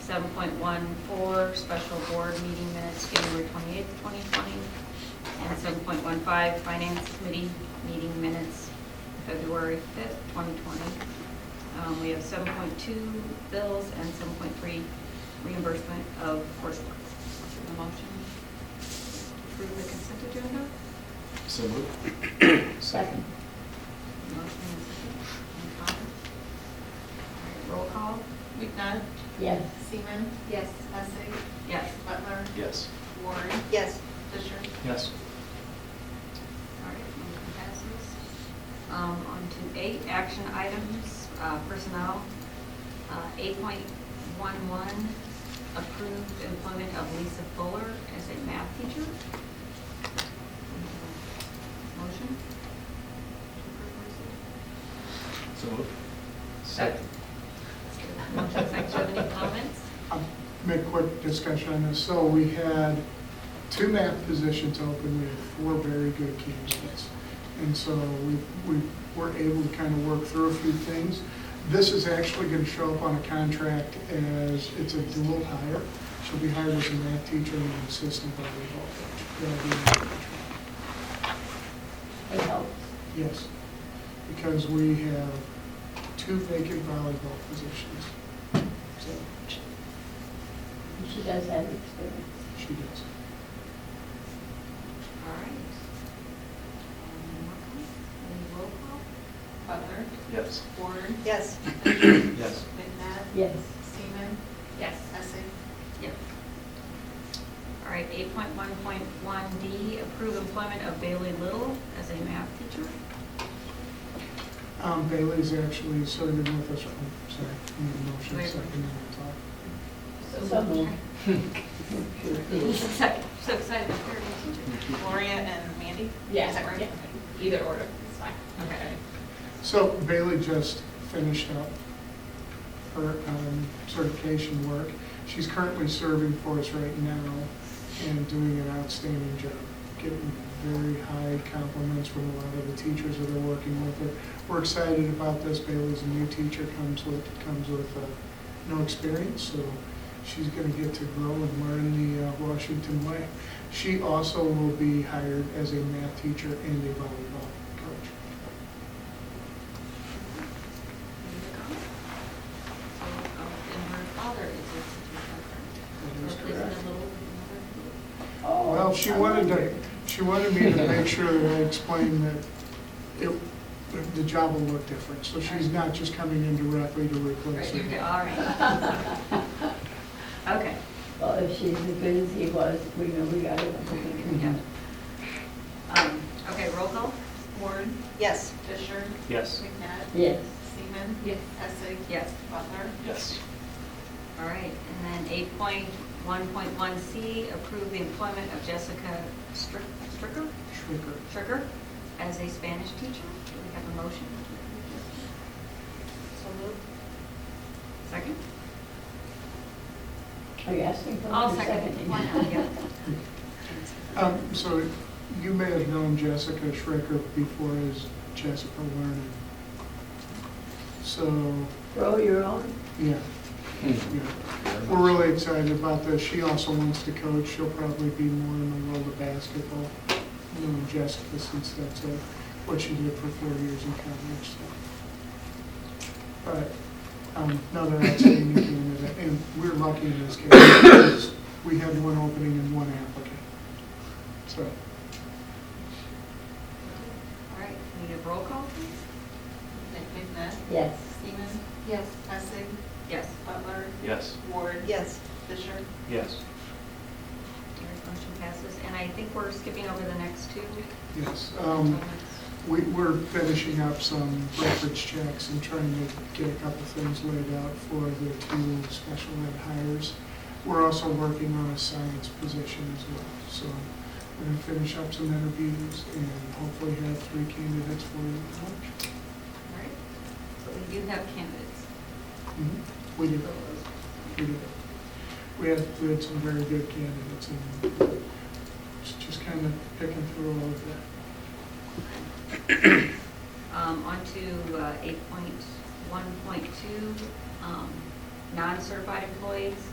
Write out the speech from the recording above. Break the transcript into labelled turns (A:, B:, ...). A: seven point one four, special board meeting minutes, January twenty-eighth, twenty twenty. And seven point one five, finance committee meeting minutes, February fifth, twenty twenty. Um, we have seven point two bills and seven point three reimbursement of coursework. A motion to approve the consent agenda?
B: So moved.
C: Second.
A: Motion and second. Any comments? All right, Roll call?
D: McNutt?
C: Yes.
D: Seaman?
A: Yes.
D: Essing?
A: Yes.
D: Butler?
B: Yes.
D: Uh, Warren?
E: Yes.
D: Fisher?
B: Yes.
A: All right, motion passes. Um, on to eight, action items, uh, personnel. Uh, eight point one one, approved employment of Lisa Fuller as a math teacher. Motion?
B: So moved.
A: Second. Motion, section, any comments?
F: I'll Make a quick discussion on this. So we had two math positions open, we had four very good candidates. And so we, we were able to kind of work through a few things. This is actually going to show up on a contract as, it's a dual hire. She'll be hired as a math teacher and an assistant volleyball coach. That'll be-
C: It helps.
F: Yes, because we have two vacant volleyball positions. So
C: She does have experience.
F: she does.
A: All right. Um, roll call? Any roll call?
D: Butler?
B: Yes.
D: Warren?
E: Yes.
B: Yes.
D: McNabb?
C: Yes.
D: Seaman?
A: Yes.
D: Essing?
A: Yep. All right, eight point one point one D, approve employment of Bailey Little as a math teacher.
F: Um, Bailey's actually serving with us, oh, sorry, I need a motion
A: Wait.
F: second, and
C: So moved.
A: Second, So excited about her new teacher.
D: Gloria and Mandy?
C: Yeah.
D: Is that right?
C: Yeah.
D: Okay. Either order, it's fine.
A: Okay.
F: I'll talk. So Bailey just finished up her um, certification work. She's currently serving for us right now and doing an outstanding job, getting very high compliments from a lot of the teachers that are working with her. We're excited about this. Bailey's a new teacher, comes with, comes with uh, no experience, so she's going to get to grow and learn the uh, Washington way. She also will be hired as a math teacher and a volleyball coach.
A: Any comments? So, oh, And her father is a teacher.
F: That is
A: Replacing
F: correct.
A: the Little with
C: Oh,
F: Well, she
C: I
F: wanted
C: like
F: to,
C: it.
F: she wanted me to make sure that I explained that it, that the job will look different. So she's not just coming in directly to
A: another. Right,
F: replace
A: you're good,
F: her.
A: all right. Okay,
C: Well, if she's as good as he was, we know we got it.
A: yeah. Um, Okay, roll call?
D: Warren?
E: Yes.
D: Fisher?
B: Yes.
D: McNabb?
C: Yes.
D: Seaman?
A: Yes.
D: Essing?
A: Yes.
D: Butler?
B: Yes.
A: All right, and then eight point one point one C, approve the employment of Jessica Strick- Stricker,
F: Trigger.
A: Stricker as a Spanish teacher. Do we have a motion?
E: So moved.
A: Second?
C: Are you asking for?
A: I'll
C: a
A: second. Why not? Yeah.
F: Um, so you may have known Jessica Schrecker before as Jessica Learning. So,
C: Grow your own.
F: yeah, yeah. We're really excited about this. She also wants to coach. She'll probably be more in the world of basketball, knowing Jessica, since that's uh, what she did for four years in college, so. But, um, no, they're not saying anything to that, and we're lucky in this case, because we had one opening and one applicant. So,
A: All right, need a roll call, please?
D: McNabb?
C: Yes.
D: Seaman?
E: Yes.
D: Essing?
A: Yes.
D: Butler?
B: Yes.
D: Warren?
E: Yes.
D: Fisher?
B: Yes.
A: All right, Motion passes, and I think we're skipping over the next two.
F: yes, um, we, we're finishing up some reference checks and trying to get a couple things laid out for the two special ed hires. We're also working on a science position as well, so we're gonna finish up some interviews and hopefully have three candidates for you. at lunch.
A: All right, but we do have candidates.
F: Mm-hmm. We did, we did. We had, we had some very good candidates and it's just kind of picking through all of that.
A: Um, On to uh, 8.1.2, um, non-certified employees.